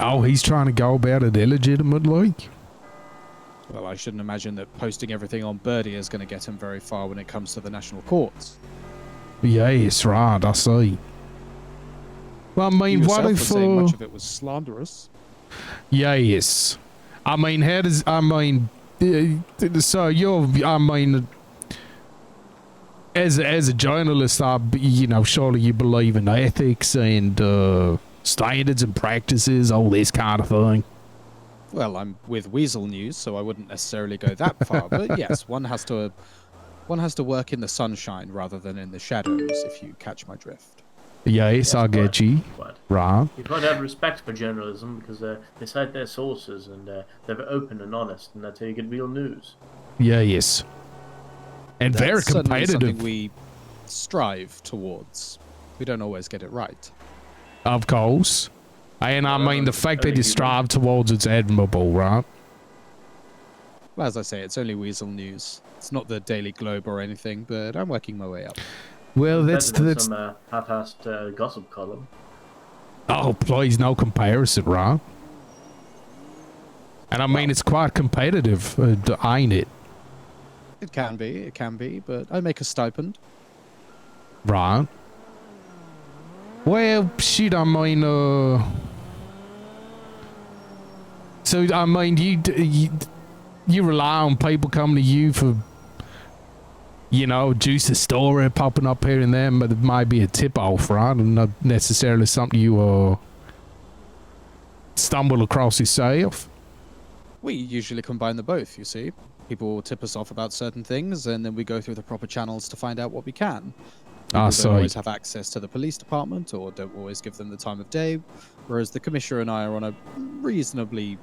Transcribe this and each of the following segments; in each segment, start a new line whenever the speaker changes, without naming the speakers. Oh, he's trying to go about it illegitimately.
Well, I shouldn't imagine that posting everything on Birdie is going to get him very far when it comes to the national courts.
Yes, right. I see. Well, I mean,
you
what
yourself were
if?
saying
Uh,
much of it was slanderous.
yes, I mean, how does? I mean, uh, so you're. I mean, as as a journalist, I b- you know surely you believe in ethics and uh, standards and practices, all this kind of thing.
Well, I'm with Weasel News, so I wouldn't necessarily go that far. but yes, one has to, one has to work in the sunshine rather than in the shadows. If you catch my drift.
Yes, I
but-
get you.
But
Right.
you've got to have respect for journalism because uh, they cite their sources and uh, they're open and honest, and that's how you get real news.
Yes. And very
That's certainly
competitive.
Something we strive towards. We don't always get it right.
Of course. And I
Well,
mean, the fact
I
that
think
you
you-
strive towards it's admirable, right?
Well, as I say, it's only Weasel News. It's not the Daily Globe or anything, but I'm working my way up.
Well, that's
Better than
that's.
some uh, half-assed uh, gossip column.
Oh, please, no comparison, right? And I mean, it's quite competitive, uh, d- ain't it?
It can be, it can be, but I make a stipend.
Right. Well, shit, I mean, uh. So, I mean, you, d- you, you rely on people coming to you for, you know, juice a story popping up here and there, but it might be a tip off, right? And not necessarily something you, uh, stumble across yourself.
We usually combine the both, you see. People will tip us off about certain things, and then we go through the proper channels to find out what we can.
Ah,
People don't
sorry.
always have access to the police department, or don't always give them the time of day, whereas the commissioner and I are on a reasonably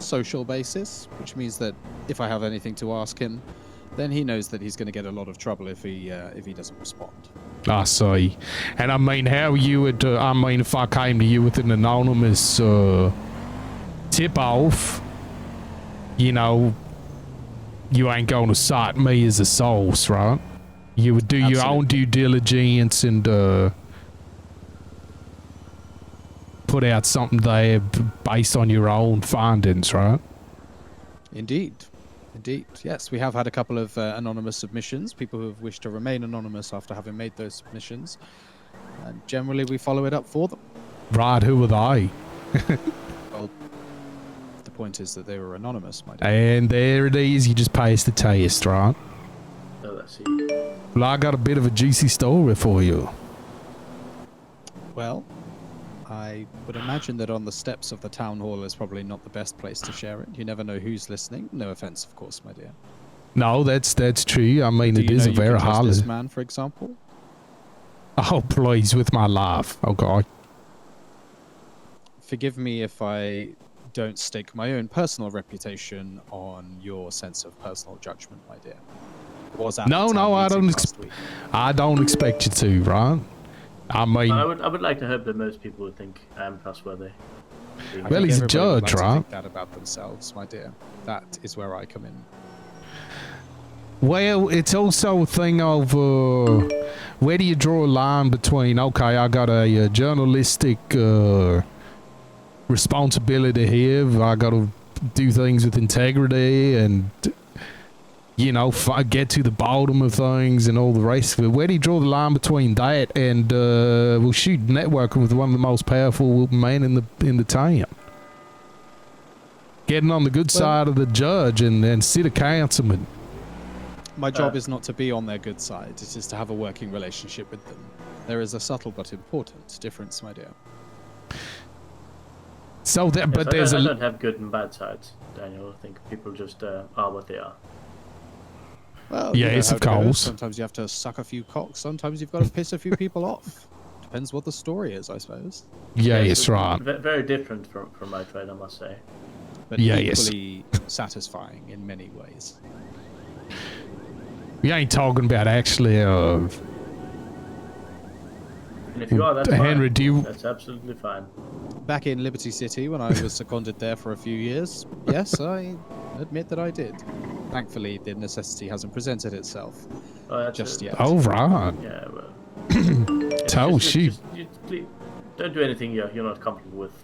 social basis, which means that if I have anything to ask him, then he knows that he's going to get a lot of trouble if he uh, if he doesn't respond.
I see. And I mean, how you would, uh, I mean, if I came to you with an anonymous uh, tip off, you know, you ain't going to cite me as a source, right? You would do your own due diligence and uh, put out something there b- based on your own findings, right?
Indeed. Indeed. Yes, we have had a couple of uh, anonymous submissions, people who have wished to remain anonymous after having made those submissions. And generally, we follow it up for them.
Right, who are they?
The point is that they were anonymous, my dear.
And there it is, you just pass the test, right?
Oh, that's it.
Well, I got a bit of a juicy story for you.
Well, I would imagine that on the steps of the town hall is probably not the best place to share it. You never know who's listening. No offense, of course, my dear.
No, that's that's true. I mean,
Do
it
you
is
know
a
you
very
can trust
hard.
This man, for example.
Oh, please, with my life. Oh God.
Forgive me if I don't stake my own personal reputation on your sense of personal judgment, my dear. Was at
No,
the
no,
town
I
meeting
don't
last
exp-
week.
I don't expect you to, right? I mean,
But I would, I would like to hope that most people would think I am trustworthy.
I
Well, he's
think
a
everybody would
judge,
like to
right?
think that about themselves, my dear. That is where I come in.
well, it's also a thing of uh, where do you draw a line between? Okay, I got a, uh journalistic uh, responsibility here. I got to do things with integrity and. You know, fi- get to the bottom of things and all the rest of it. Where do you draw the line between that and uh, well, shoot, networking with one of the most powerful men in the in the town? Getting on the good
Well-
side of the judge and and city councilman.
My job
Uh,
is not to be on their good side, it is to have a working relationship with them. There is a subtle but important difference, my dear.
So that,
Yes,
but
I
there's
don't, I
a
don't have good and bad sides, Daniel. I think people just uh, are what they are.
Well, you know
Yes,
how
of
it goes.
course.
Sometimes you have to suck a few cocks, sometimes you've got to piss a few people off. Depends what the story is, I suppose.
yeah,
Yes,
it's right.
ve- Very different from, from my trade, I must say.
But
Yeah, yes.
equally satisfying in many ways.
We ain't talking about actually. Uh,
And if you are, that's
Henry,
fine.
do you-
That's absolutely fine.
Back in Liberty City when I was seconded there for a few years, yes, I admit that I did. Thankfully, the necessity hasn't presented itself
Oh, that's
just
a-
yet.
oh right.
Yeah, well.
Tell
Just-
she-
just- just- just please, Don't do anything you're, you're not comfortable with.